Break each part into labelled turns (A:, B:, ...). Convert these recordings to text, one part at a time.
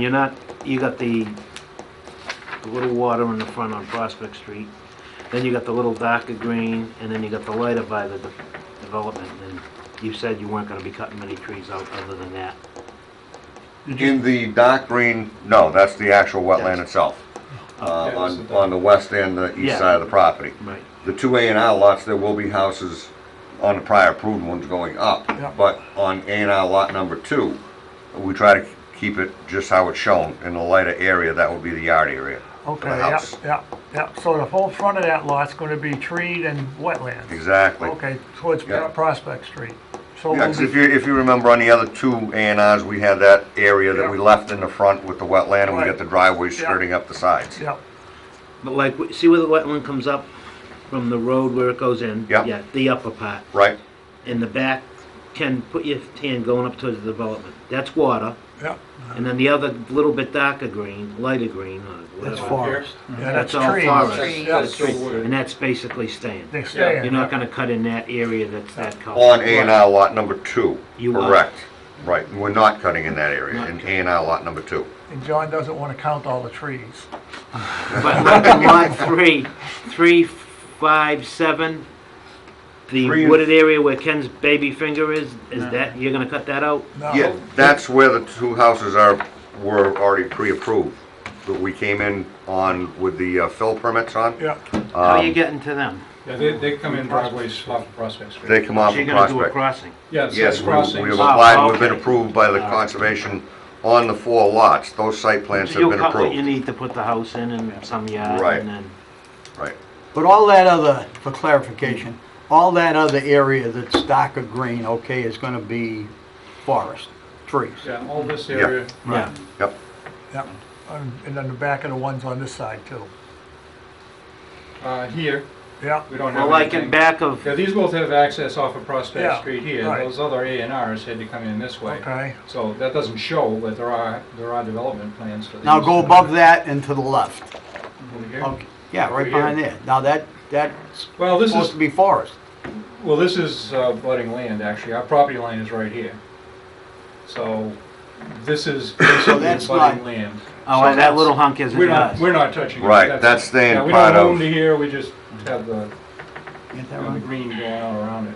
A: You're not, you got the, the little water in the front on Prospect Street, then you got the little darker green, and then you got the lighter by the de- development, and you said you weren't gonna be cutting many trees out other than that.
B: In the dark green, no, that's the actual wetland itself, uh, on, on the west and the
A: Yeah.
B: east side of the property.
A: Right.
B: The two A and R lots, there will be houses on the prior approved ones going up.
C: Yeah.
B: But on A and R lot number two, we try to keep it just how it's shown, in the lighter area, that would be the yard area.
C: Okay,
B: the
C: yeah,
B: house.
C: yeah, yeah, so the whole front of that lot's gonna be treed and wetlands.
B: Exactly.
C: Okay, towards
B: Yeah.
C: Prospect Street. So
B: Yeah,
C: we'll
B: 'cause if
C: be,
B: you, if you remember on the other two A and Rs, we had that area that we
C: Yeah.
B: left in the front with the wetland, and we
C: Right.
B: got the driveway
C: Yeah.
B: skirting up the sides.
C: yeah,
A: But like, w- see where the wetland comes up from the road where it goes in?
B: Yeah.
A: Yeah, the upper part.
B: Right?
A: In the back, Ken, put your hand going up towards the development. That's water,
C: yeah,
A: and then the other little bit darker green, lighter green, or whatever.
C: that's forest. Yeah, that's
A: Mhm. That's all
C: trees.
A: forest.
C: Yeah,
D: That's still wood.
A: And that's basically staying.
C: They
A: You're
C: stay,
A: not gonna cut in that area that's that color.
B: On A and R lot number two,
A: You are.
B: correct. Right, we're not cutting in that area,
A: Not
B: in A
A: cutting.
B: and R lot number two.
C: and John doesn't wanna count all the trees.
A: But look at lot three, three, five, seven,
B: Three
A: the
B: and-
A: wooded area where Ken's baby finger is, is that, you're gonna cut that out?
C: No.
B: Yeah, that's where the two houses are, were already pre-approved, that we came in on with the uh, fill permits on.
C: Yeah,
A: How are you
B: Um,
A: getting to them?
D: Yeah, they, they come in driveways off of Prospect Street.
B: They come off
A: So
B: of
A: you're gonna do a
B: Prospect.
A: crossing?
D: Yeah, it's
B: Yes,
D: it's
B: we- we have
D: crossings.
A: Ah,
B: applied, we've been
A: okay.
B: approved by the conservation on the four lots. Those site plans
A: So
B: have
A: you'll
B: been
A: cut what you
B: approved.
A: need to put the house in and some yard
B: Right.
A: and then,
B: Right.
E: But all that other, for clarification, all that other area that's darker green, okay, is gonna be forest, trees.
D: Yeah, all this area,
A: yeah.
B: Yep,
C: yeah, and and then the back of the ones on this side too.
D: uh, here,
C: Yeah,
D: we don't
A: Well,
D: have
A: like in
D: anything.
A: back of, oh,
D: Yeah, these both have access off of
C: Yeah,
D: Prospect Street here.
C: right.
D: Those other A and Rs had to come in this way.
C: okay,
D: So that doesn't show, but there are, there are development plans for these.
E: Now go above that and to the left.
D: Over here.
E: Okay, yeah, right behind there. Now that, that's
D: Well, this
E: supposed
D: is,
E: to be forest.
D: well, this is uh, budding land, actually. Our property line is right here. So this is basically
E: that's
D: budding
E: not-
D: land.
A: oh,
D: So
A: and that
D: that's-
A: little hunk isn't
D: We're not,
A: yours.
D: we're not touching it.
B: right, that's staying
D: Yeah, we
B: part
D: don't own
B: of,
D: to here, we just have the
E: Get that
D: and the
E: right?
D: green going all around it.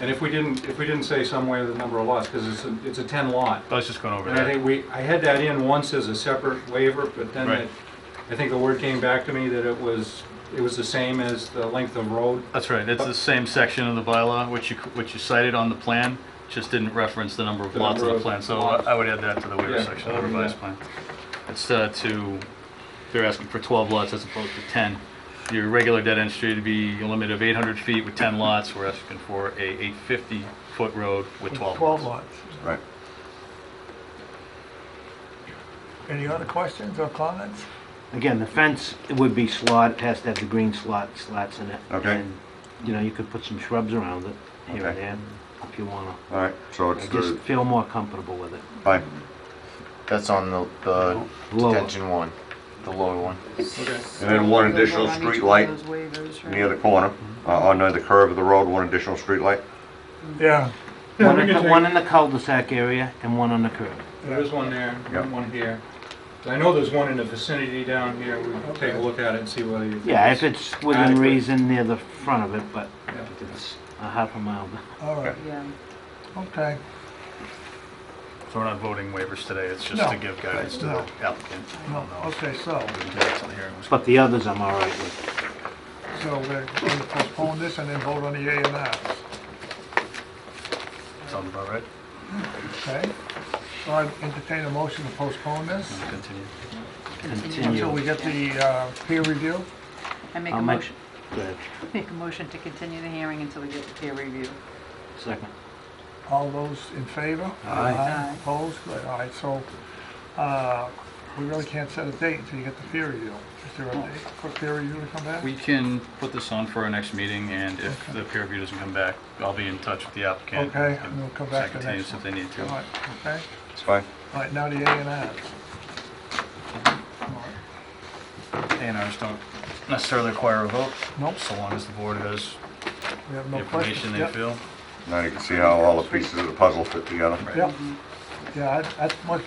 D: And if we didn't, if we didn't say somewhere the number of lots, because it's, a- it's a ten lot.
F: I was just going over
D: And I
F: that.
D: think we, I had that in once as a separate waiver, but then
F: Right.
D: it- I think the word came back to me that it was, it was the same as the length of road.
F: That's right, it's the same section of the bylaw which you, which you cited on the plan, just didn't reference the number of
D: The
F: lots of
D: number
F: the
D: of
F: plan, so
D: lots.
F: I would add that to the waiver
D: Yeah,
F: section of
D: I'll
F: the
D: do
F: revised
D: that.
F: plan. It's uh, to, they're asking for 12 lots as opposed to 10. Your regular dead-end street would be a limit of 800 feet with 10 lots, we're asking for a 850-foot road with 12
C: twelve
F: lots.
C: lots.
B: right.
C: Any other questions or comments?
A: Again, the fence, it would be slot, it has to have the green slot, slats in it.
B: Okay.
A: And, You know, you could put some shrubs around it here and
B: Okay.
A: there if you wanna.
B: All right, so
A: I
B: it's
A: just
B: the,
A: feel more comfortable with it.
B: fine.
G: That's on the, the
A: Lower.
G: detention one, the lower one.
D: Okay.
B: And then one additional street light near the corner, uh, on the curve of the road, one additional street light. Mm-hmm.
C: Yeah,
D: Yeah,
A: One
D: we
A: in,
D: can
A: the-
D: take-
A: one in the cul-de-sac area and one on the curb.
D: There is one there,
B: Yep.
D: one here. I know there's one in the vicinity down here, we can take a look at it and see whether you. think
A: Yeah,
D: it's-
A: if it's within
D: adequate.
A: reason near the front of it, but
D: Yeah.
A: if it's a half a mile.
C: all right,
H: Yeah.
C: okay.
F: So we're not voting waivers today, it's just
C: No.
F: to give guidance to
C: No.
F: the applicant.
C: No, Okay, so,
F: We can do that till the hearing was-
A: But the others I'm all right with.
C: so we're going to postpone this and then vote on the A and Rs.
F: Sound about right?
C: Okay, so I entertain a motion to postpone this
F: Continue.
C: until we
A: Continue.
C: get the uh, peer review.
H: I make
A: I'll
H: a
A: make
H: motion,
A: Go ahead.
H: make a motion to continue the hearing until we get the peer review.
A: Second.
C: All those in favor?
E: Aye.
H: Aye.
C: Opposed? Good, all right, so uh, we really can't set a date until you get the peer review. Is there a date for peer review to come back?
F: We can put this on for our next meeting, and if the peer review doesn't come back, I'll be in touch with the applicant.
C: Okay, and we'll come back to the
F: Second
C: next
F: if they need
C: All
F: to.
C: right, okay,
B: It's fine.
C: all right, now the A and Rs.
F: A and Rs don't necessarily require a vote.
C: Nope.
F: So long as the board has
C: We have
F: the
C: no
F: information
C: questions.
F: they
C: Yep,
F: feel.
B: Now you can see how all the pieces of the puzzle fit together.
C: Yep, Yeah, I- that's much